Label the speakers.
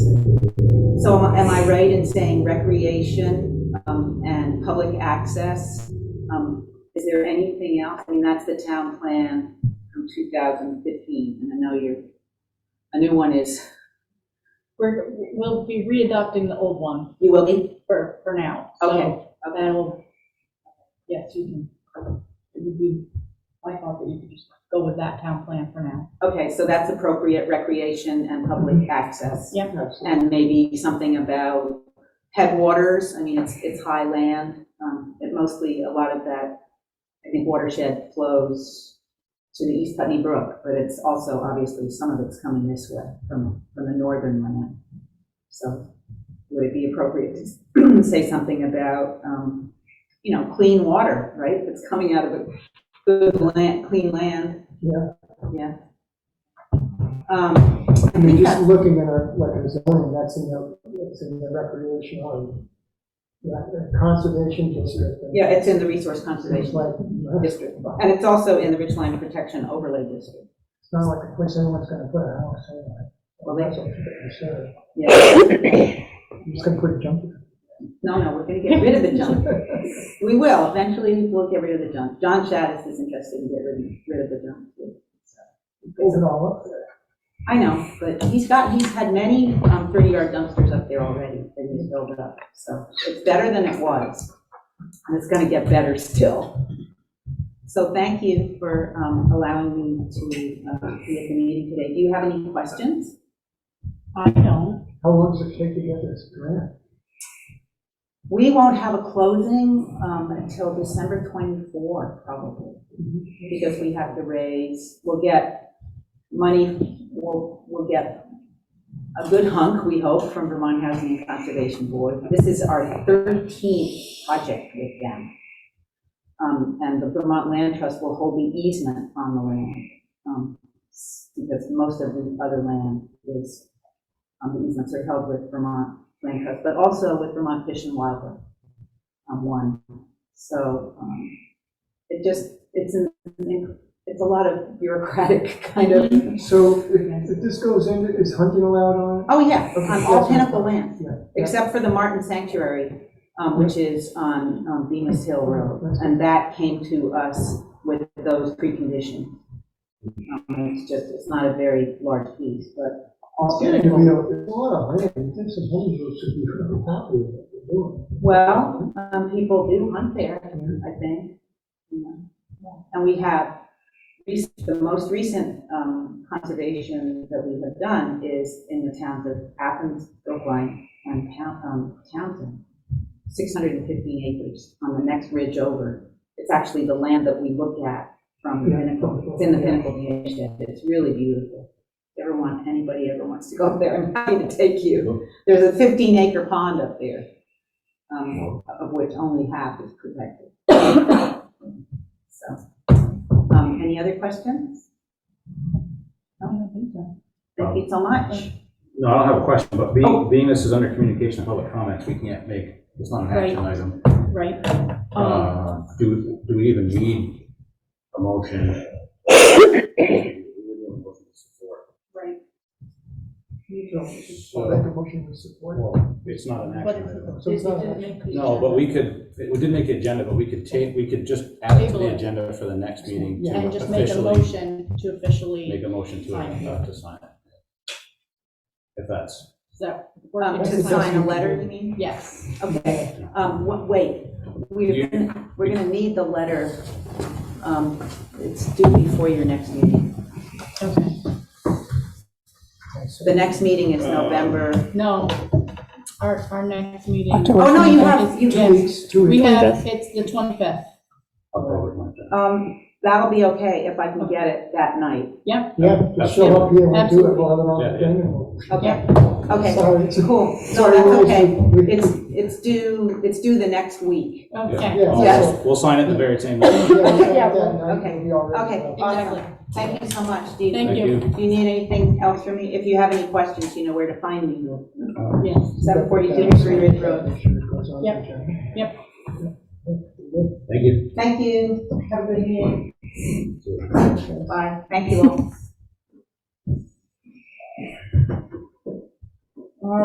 Speaker 1: So am I- am I right in saying recreation um, and public access? Um, Is there anything else? I mean, that's the town plan from 2015, and I know you're, a new one is,
Speaker 2: We're, we'll be re-adopting the old one
Speaker 1: you will be?
Speaker 2: for, for now. So
Speaker 1: Okay, okay.
Speaker 2: Then we'll, yes, you can, it would be, I thought that you could just go with that town plan for now.
Speaker 1: Okay, so that's appropriate recreation and public access.
Speaker 2: Yeah.
Speaker 1: And maybe something about headwaters, I mean, it's, it's high land, um, it mostly, a lot of that, I think watershed flows to the East Putney Brook, but it's also, obviously, some of it's coming this way from, from the northern land. So would it be appropriate to say something about, um, you know, clean water, right? If It's coming out of a good land, clean land.
Speaker 3: Yeah.
Speaker 1: Yeah. Um,
Speaker 3: I mean, just looking at our, like our zoning, that's in the, that's in the recreational, yeah, the conservation district. and
Speaker 1: Yeah, it's in the resource
Speaker 3: It's
Speaker 1: conservation
Speaker 3: like, it's
Speaker 1: district, and it's also in the Ridgeline Protection Overlay District.
Speaker 3: not like a place anyone's gonna put a house anyway. Well, that's what you're
Speaker 1: Yeah,
Speaker 3: saying. I'm just gonna put a jump.
Speaker 1: no, no, we're gonna get rid of the junk. We will, eventually we'll get rid of the junk. John Shaddis is interested in getting rid of the junk. too.
Speaker 3: Open all up there.
Speaker 1: I know, but he's got, he's had many um, 30-yard dumpsters up there already that he's filled up, so it's better than it was. And it's gonna get better still. So thank you for um, allowing me to uh, be at the meeting today. Do you have any questions?
Speaker 2: I don't.
Speaker 3: How long does it take to get this grant?
Speaker 1: We won't have a closing um, until December 24, probably, because we have to raise, we'll get money, we'll, we'll get a good hunk, we hope, from Vermont Housing and Conservation Board. This is our 13th project with them. Um, And the Vermont Land Trust will hold the easement on the land, um, s- because most of the other land is, um, the easements are held with Vermont land trust, but also with Vermont Fish and Wildlife on one. So um, it just, it's, an it's a lot of bureaucratic kind of,
Speaker 3: Mm-hmm. So if, if this goes in, is hunting allowed on it?
Speaker 1: oh yeah, on all Pinnacle land,
Speaker 3: Yeah.
Speaker 1: except for the Martin Sanctuary, um, which is on um, Bemis Hill Road. And that came to us with those preconditions. Um, It's just, it's not a very large piece, but all
Speaker 3: Yeah, you
Speaker 1: Pinnacle.
Speaker 3: know, There's a lot of land, there's some homes that should be really happy with what they're doing.
Speaker 1: Well, um, people do hunt there, I think. you know. And we have, rec- the most recent um, conservation that we have done is in the towns of Athens, Brookline, and Town- um, Townsend. 615 acres on the next ridge over. It's actually the land that we look at from the
Speaker 3: Yeah.
Speaker 1: pinnacle. It's in the pinnacle viewshed. It's really beautiful. If ever want, anybody ever wants to go up there, I'm happy to take you. There's a 15 acre pond up there, um, of which only half is protected. So, um, any other questions?
Speaker 2: I don't think so.
Speaker 1: Thank you so much.
Speaker 4: No, I don't have a question, but
Speaker 1: Oh.
Speaker 4: being, being this is under communication and public comments, we can't make, it's not an action item.
Speaker 2: Right. Um,
Speaker 4: Uh, Do, do we even need a motion?
Speaker 2: Right.
Speaker 3: So I'll make a motion to support. it.
Speaker 4: Well, It's not an
Speaker 2: But
Speaker 4: action item.
Speaker 3: So it's not-
Speaker 4: No, but we could, we didn't make the agenda, but we could take, we could just add it to
Speaker 2: Table
Speaker 4: the
Speaker 2: it.
Speaker 4: agenda for the next meeting to
Speaker 2: And just make a
Speaker 4: officially
Speaker 2: motion to
Speaker 4: make
Speaker 2: officially,
Speaker 4: a motion to,
Speaker 2: Sign it.
Speaker 4: uh, to sign it. If that's,
Speaker 2: so, we're
Speaker 1: Um,
Speaker 2: going
Speaker 3: That's
Speaker 1: to
Speaker 3: the best
Speaker 1: sign a
Speaker 3: we can
Speaker 1: letter,
Speaker 3: do.
Speaker 1: you mean?
Speaker 2: yes.
Speaker 1: Okay, um, wa- wait, we're,
Speaker 4: You-
Speaker 1: gonna- we're gonna need the letter, um, it's due before your next meeting.
Speaker 2: Okay.
Speaker 1: The next meeting is
Speaker 4: Uh,
Speaker 1: November,
Speaker 2: No, our, our next meeting.
Speaker 5: October.
Speaker 1: oh, no, you have, you
Speaker 2: Yes.
Speaker 3: Two weeks, two
Speaker 2: We
Speaker 3: weeks.
Speaker 2: have, it's the 25th.
Speaker 4: I'll go with my-
Speaker 1: um, that'll be okay if I can get it that night.
Speaker 3: Yeah, just show up here, we'll do it,
Speaker 2: Absolutely.
Speaker 3: we'll have it on the
Speaker 4: Yeah,
Speaker 3: thing. and we'll-
Speaker 1: Okay, okay,
Speaker 3: Sorry, it's-
Speaker 1: cool, no,
Speaker 3: sorry,
Speaker 1: that's
Speaker 3: we-
Speaker 1: okay,
Speaker 3: we-
Speaker 1: it's, it's due, it's due the next week.
Speaker 2: Okay.
Speaker 3: Yeah.
Speaker 1: Yes.
Speaker 4: We'll sign it the very same day.
Speaker 3: Yeah, we'll have
Speaker 1: Yeah,
Speaker 3: that night,
Speaker 1: okay.
Speaker 3: we'll be all ready.
Speaker 1: Okay.
Speaker 2: Exactly.
Speaker 1: Thank you so much, Steve.
Speaker 2: Thank you.
Speaker 1: Do you need anything else from me? If you have any questions, you know where to find me.
Speaker 2: Yes.
Speaker 1: Seven forty-two Green Ridge Road.
Speaker 3: Make sure it goes on the
Speaker 2: Yep.
Speaker 3: agenda.
Speaker 2: Yep.
Speaker 3: Good.
Speaker 4: Thank you.
Speaker 1: Thank you, have a good evening, bye, thank you all.